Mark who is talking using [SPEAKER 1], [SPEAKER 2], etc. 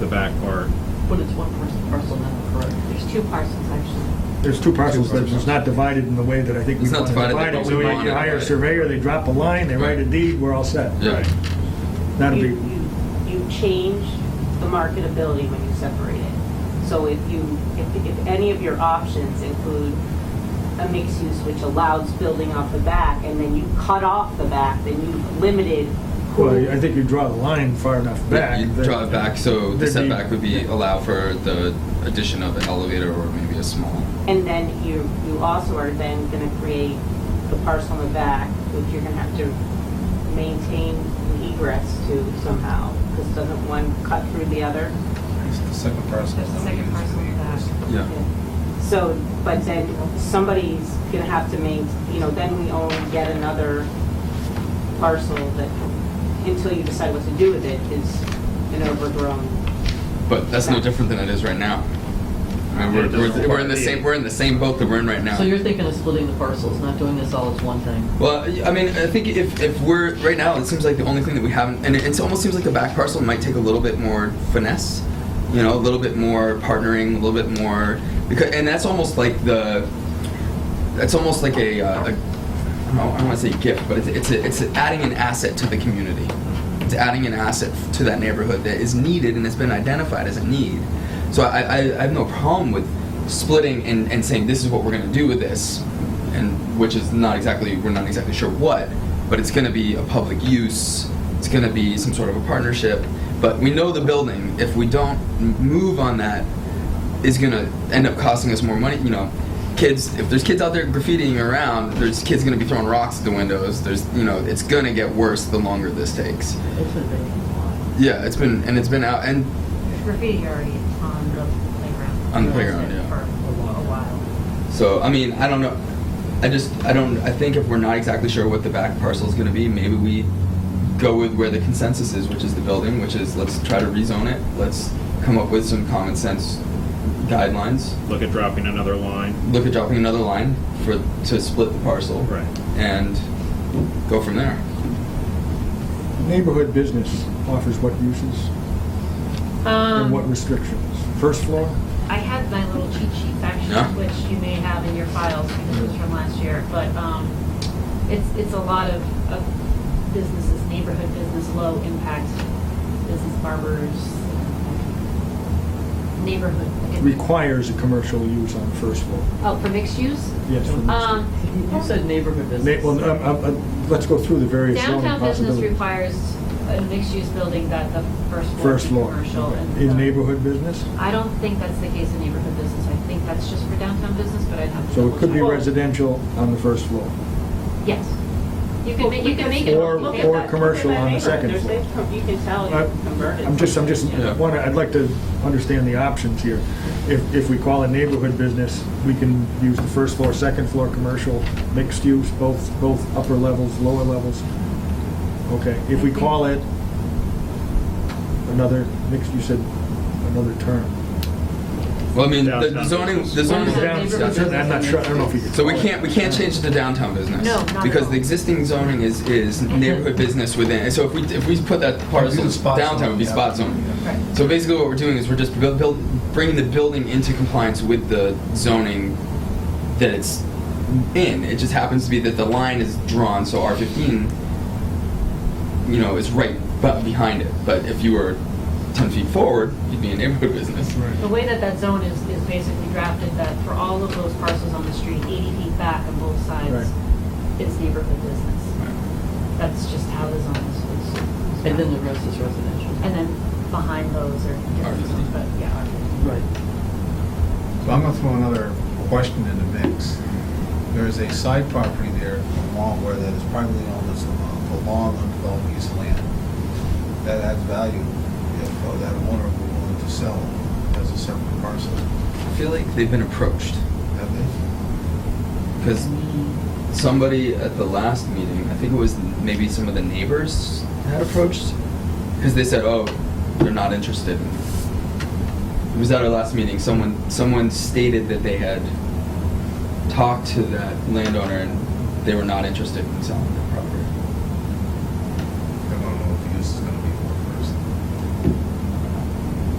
[SPEAKER 1] the back part.
[SPEAKER 2] But it's one person parcel now, correct?
[SPEAKER 3] There's two parcels, actually.
[SPEAKER 4] There's two parcels, but it's not divided in the way that I think we
[SPEAKER 5] It's not
[SPEAKER 4] want to
[SPEAKER 5] divided
[SPEAKER 4] divide
[SPEAKER 5] the
[SPEAKER 4] it.
[SPEAKER 5] way
[SPEAKER 4] So
[SPEAKER 5] we
[SPEAKER 4] you
[SPEAKER 5] want it,
[SPEAKER 4] hire a
[SPEAKER 5] right.
[SPEAKER 4] surveyor, they drop a line, they write a deed, we're all set.
[SPEAKER 5] Yeah.
[SPEAKER 1] Right.
[SPEAKER 4] That'll
[SPEAKER 3] You-
[SPEAKER 4] be,
[SPEAKER 3] You, you change the marketability when you separate it. So if you, if, if any of your options include a mixed use which allows building off the back, and then you cut off the back, then you've limited
[SPEAKER 4] well, I
[SPEAKER 3] who,
[SPEAKER 4] think you draw the line far enough back.
[SPEAKER 5] You
[SPEAKER 4] that-
[SPEAKER 5] draw it back, so the
[SPEAKER 4] There'd be-
[SPEAKER 5] setback would be, allow for the addition of an elevator or maybe a small.
[SPEAKER 3] and then you, you also are then gonna create the parcel in the back, which you're gonna have to maintain an egress to somehow, because doesn't one cut through the other?
[SPEAKER 1] The second parcel.
[SPEAKER 6] There's a second parcel in the back.
[SPEAKER 5] Yeah.
[SPEAKER 3] So, but then somebody's gonna have to main, you know, then we own yet another parcel that, until you decide what to do with it, is an overgrown.
[SPEAKER 5] But that's no different than it is right now. I mean,
[SPEAKER 1] It
[SPEAKER 5] We're,
[SPEAKER 1] doesn't
[SPEAKER 5] we're, we're in the
[SPEAKER 1] require-
[SPEAKER 5] same, we're in the same boat that we're in right now.
[SPEAKER 2] So you're thinking of splitting the parcels, not doing this all as one thing?
[SPEAKER 5] Well, I mean, I think if, if we're right now, it seems like the only thing that we haven't, and it, it almost seems like the back parcel might take a little bit more finesse, you know, a little bit more partnering, a little bit more because, and that's almost like the, that's almost like a, uh, a I don't, I don't want to say gift, but it's it's, a, it's adding an asset to the community. It's adding an asset to that neighborhood that is needed and has been identified as a need. So I, I, I have no problem with splitting and, and saying this is what we're going to do with this, and which is not exactly we're not exactly sure what, but it's going to be a public use. It's going to be some sort of a partnership. But we know the building. If we don't m- move on that, is gonna end up costing us more money. You know, kids. If there's kids out there graffitiing around, there's kids gonna be throwing rocks at the windows. There's, you know, it's gonna get worse the longer this takes.
[SPEAKER 2] It's been vacant lot.
[SPEAKER 5] Yeah, it's been and it's been out and
[SPEAKER 6] There's graffiti already on the playground.
[SPEAKER 5] On the
[SPEAKER 6] There
[SPEAKER 5] playground,
[SPEAKER 6] has been
[SPEAKER 5] yeah.
[SPEAKER 6] For a while.
[SPEAKER 5] so I mean I don't know. I just I don't I think if we're not exactly sure what the back parcel is gonna be, maybe we go with where the consensus is, which is the building, which is let's try to rezone it. Let's come up with some common sense guidelines.
[SPEAKER 1] Look at dropping another line.
[SPEAKER 5] Look at dropping another line for to split the parcel.
[SPEAKER 1] Right.
[SPEAKER 5] and go from there.
[SPEAKER 4] Neighborhood business offers what uses and what
[SPEAKER 6] Um,
[SPEAKER 4] restrictions? First floor?
[SPEAKER 6] I had my little cheat sheets actually,
[SPEAKER 5] Yeah.
[SPEAKER 6] which you may have in your files because it was from last year, but, um, it's, it's a lot of, of businesses, neighborhood business, low impact business, barbers, neighborhood.
[SPEAKER 4] Requires a commercial use on first floor.
[SPEAKER 6] Oh, for mixed use?
[SPEAKER 4] Yes. for mixed
[SPEAKER 6] Um,
[SPEAKER 2] You- You said neighborhood
[SPEAKER 4] Na-
[SPEAKER 2] business.
[SPEAKER 4] Well, um, um, uh, let's go through the various zoning
[SPEAKER 6] Downtown business
[SPEAKER 4] possibilities.
[SPEAKER 6] requires a mixed-use building that the first floor
[SPEAKER 4] First
[SPEAKER 6] is
[SPEAKER 4] floor.
[SPEAKER 6] commercial. and the-
[SPEAKER 4] In neighborhood business?
[SPEAKER 6] I don't think that's the case in neighborhood business. I think that's just for downtown business, but I'd have to.
[SPEAKER 4] So it could be
[SPEAKER 6] double check.
[SPEAKER 4] residential on the first floor.
[SPEAKER 6] Yes. You can make, you can make it.
[SPEAKER 4] Or-
[SPEAKER 6] look
[SPEAKER 3] Look
[SPEAKER 6] at
[SPEAKER 3] at
[SPEAKER 4] or
[SPEAKER 3] that-
[SPEAKER 6] that.
[SPEAKER 4] commercial
[SPEAKER 3] look at
[SPEAKER 4] on the
[SPEAKER 3] that
[SPEAKER 4] second
[SPEAKER 3] neighborhood.
[SPEAKER 4] floor.
[SPEAKER 3] There's- You can tell
[SPEAKER 4] I-
[SPEAKER 3] it's converted.
[SPEAKER 4] I'm just, I'm just,
[SPEAKER 5] Yeah.
[SPEAKER 4] wanna, I'd like to understand the options here. If, if we call it neighborhood business, we can use the first floor, second floor, commercial, mixed use, both, both upper levels, lower levels. Okay, if we call it another, mixed, you said another term.
[SPEAKER 5] Well, I mean, the- the
[SPEAKER 1] Downtown
[SPEAKER 5] zoning, the
[SPEAKER 2] business.
[SPEAKER 5] zoning.
[SPEAKER 2] Downtown
[SPEAKER 4] Down-
[SPEAKER 2] neighborhood business
[SPEAKER 4] I'm not sure, I don't know if you could.
[SPEAKER 5] So we
[SPEAKER 4] call it-
[SPEAKER 5] can't we can't change it to downtown business.
[SPEAKER 6] No, not at
[SPEAKER 5] because
[SPEAKER 6] all.
[SPEAKER 5] the existing zoning is is neighborhood business within. and So if we if we put that parcel
[SPEAKER 7] It'd be the spot
[SPEAKER 5] downtown,
[SPEAKER 7] zone,
[SPEAKER 5] it'd be
[SPEAKER 7] yeah.
[SPEAKER 5] spot zoning.
[SPEAKER 6] Right.
[SPEAKER 5] So basically, what we're doing is we're just build, build, bringing the building into compliance with the zoning that it's in. It just happens to be that the line is drawn, so R fifteen, you know, is right bu- behind it. But if you were ten feet forward, you'd be a neighborhood business.
[SPEAKER 6] The way that that zone is, is basically drafted, that for all of those parcels on the street, 80 feet back on both sides, it's neighborhood business. That's just how the zone is. is- is
[SPEAKER 2] And then the
[SPEAKER 6] drafted.
[SPEAKER 2] rest is residential.
[SPEAKER 6] And then behind those are different
[SPEAKER 5] RVC.
[SPEAKER 6] zones, but yeah. RVC.
[SPEAKER 4] Right.
[SPEAKER 7] So I'm gonna throw another question in the mix. There is a side property there along where that is privately owned as a a long undeveloped piece of land. That adds value if uh, that owner were willing to sell as a separate parcel,
[SPEAKER 5] I feel like they've been approached
[SPEAKER 7] have they?
[SPEAKER 5] because somebody at the last meeting, I think it was maybe some of the neighbors had approached because they said, "Oh, they're not interested." It was at our last meeting. Someone someone stated that they had talked to that landowner and they were not interested in selling.